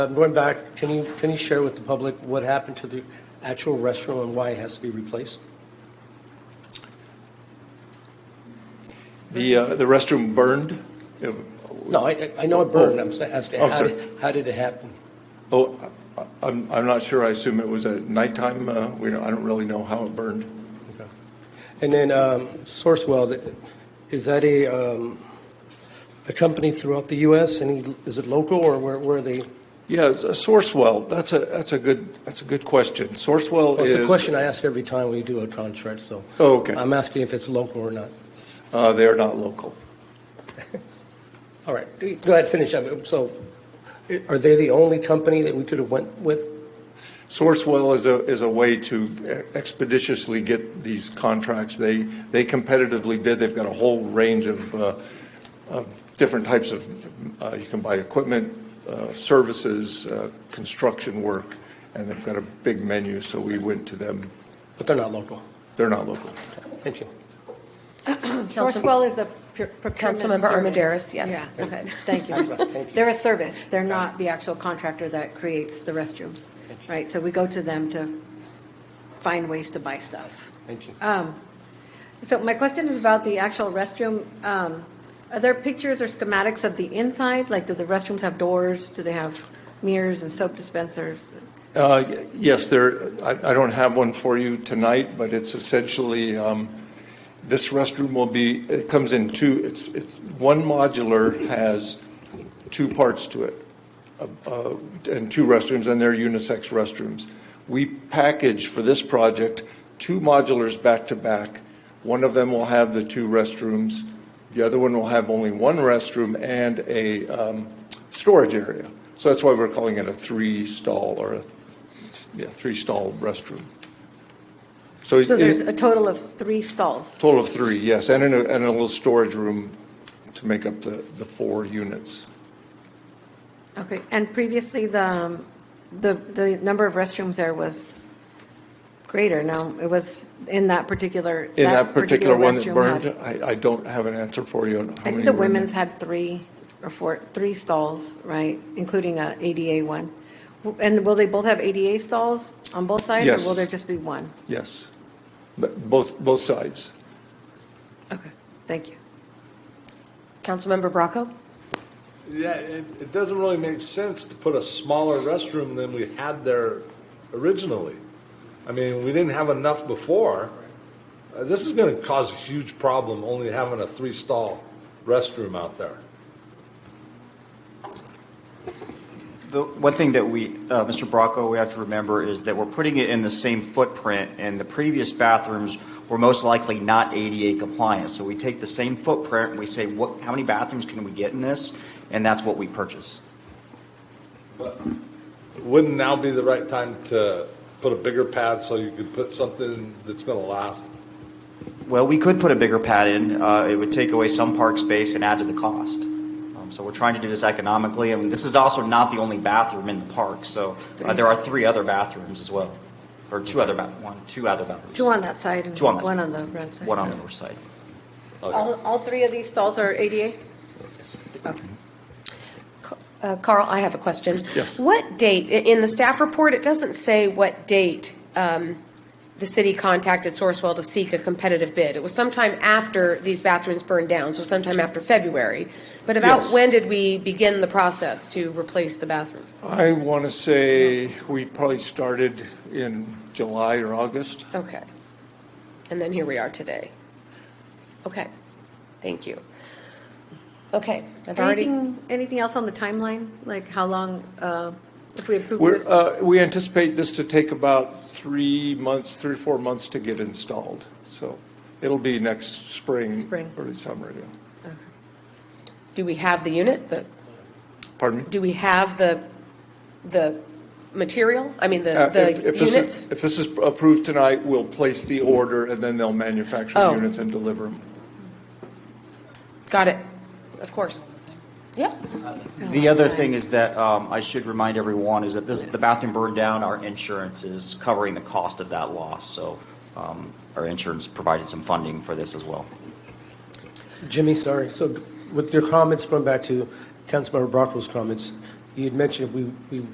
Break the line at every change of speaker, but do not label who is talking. I'm going back, can you, can you share with the public what happened to the actual restaurant and why it has to be replaced?
The, uh, the restroom burned. It-
No, I, I- I know it burned, I'm sa- asking,
Oh,
how
sorry.
did, how did it happen?
Oh, I- I'm, I'm not sure. I assume it was at nighttime. Uh, we don't, I don't really know how it burned.
Okay. And then um, Sourcewell, th- is that a, um, a company throughout the U.S.? Any, is it local or where, where are they?
Yeah, it's a Sourcewell. That's a, that's a good, that's a good question. Sourcewell
Well,
is.
It's a question I ask every time we do a contract, so.
Oh, okay.
I'm asking if it's local or not.
Uh, they're not local.
All right, go ahead, finish up. So i- are they the only company that we could have went with?
Sourcewell is a, is a way to expeditiously get these contracts. They, they competitively bid, they've got a whole range of, uh, of different types of, uh, you can buy equipment, uh, services, uh, construction work, and they've got a big menu, so we went to them.
But they're not local.
They're not local.
Thank you.
Council-
Sourcewell is a pr- procurement
Councilmember
service.
Armendariz, yes.
Yeah,
Go ahead.
Thank you.
Thank you.
They're a service, they're not the actual contractor that creates the restrooms, right? So we go to them to find ways to buy stuff.
Thank you.
So my question is about the actual restroom. Um, Are there pictures or schematics of the inside? Like, do the restrooms have doors? Do they have mirrors and soap dispensers?
Uh, y- Yes, there, I I don't have one for you tonight, but it's essentially, um, this restroom will be, it comes in two, it's, it's, one modular has two parts to it, uh, uh, and two restrooms, and they're unisex restrooms. We package for this project, two modulars back to back. One of them will have the two restrooms, the other one will have only one restroom and a um, storage area. So that's why we're calling it a three-stall or a, yeah, three-stall restroom. it-
So there's
it-
a total of three stalls.
Total of three, yes, and in a, and a little storage room to make up the, the four units.
Okay, and previously, the, um, the, the number of restrooms there was greater, no? It was in that particular,
In that particular one that
restroom
burned,
had-
I, I don't have an answer for you on how
I
many
think the
were in
women's
there.
had three or four, three stalls, right, including a ADA one. W- And will they both have ADA stalls on both sides?
Yes.
Or will there just be one?
Yes, but both, both sides.
Okay, thank you.
Councilmember Bracco?
Yeah, it, it doesn't really make sense to put a smaller restroom than we had there originally. I mean, we didn't have enough before. Uh, this is going to cause a huge problem only having a three stall restroom out there.
The one thing that we, uh, Mr. Bracco, we have to remember is that we're putting it in the same footprint, and the previous bathrooms were most likely not ADA compliant. So we take the same footprint, and we say, what, how many bathrooms can we get in this? And that's what we purchase.
Wouldn't now be the right time to put a bigger pad so you could put something that's going to last?
Well, we could put a bigger pad in. Uh, It would take away some park space and add to the cost. Um, So we're trying to do this economically, and this is also not the only bathroom in the park. So uh, there are three other bathrooms as well, or two other, ba- one, two other bathrooms.
Two on that side and
Two on that
one
side.
on the front side.
One on the north side.
All, all three of these stalls are ADA?
Uh, Carl, I have a question.
Yes.
What date, i- in the staff report, it doesn't say what date um, the city contacted Sourcewell to seek a competitive bid. It was sometime after these bathrooms burned down, so sometime after February. But about
Yes.
when did we begin the process to replace the bathrooms?
I want to say we probably started in July or August.
Okay. And then here we are today. Okay, thank you. Okay, I've already.
Anything, anything else on the timeline? Like how long, uh, if we approve
We're,
this?
uh, we anticipate this to take about three months, three, or four months to get installed. So it'll be next spring.
Spring.
Early summer, yeah.
Do we have the unit, the,
Pardon me?
do we have the, the material? I mean, the,
Uh, if-
the
if this is-
units?
If this is approved tonight, we'll place the order, and then they'll manufacture the
Oh.
units and deliver them.
Got it, of course. Yeah,
The other thing is that um, I should remind everyone is that this, the bathroom burned down, our insurance is covering the cost of that loss. So um, our insurance provided some funding for this as well.
Jimmy, sorry. So with your comments, going back to Councilmember Bracco's comments, you had mentioned if we, we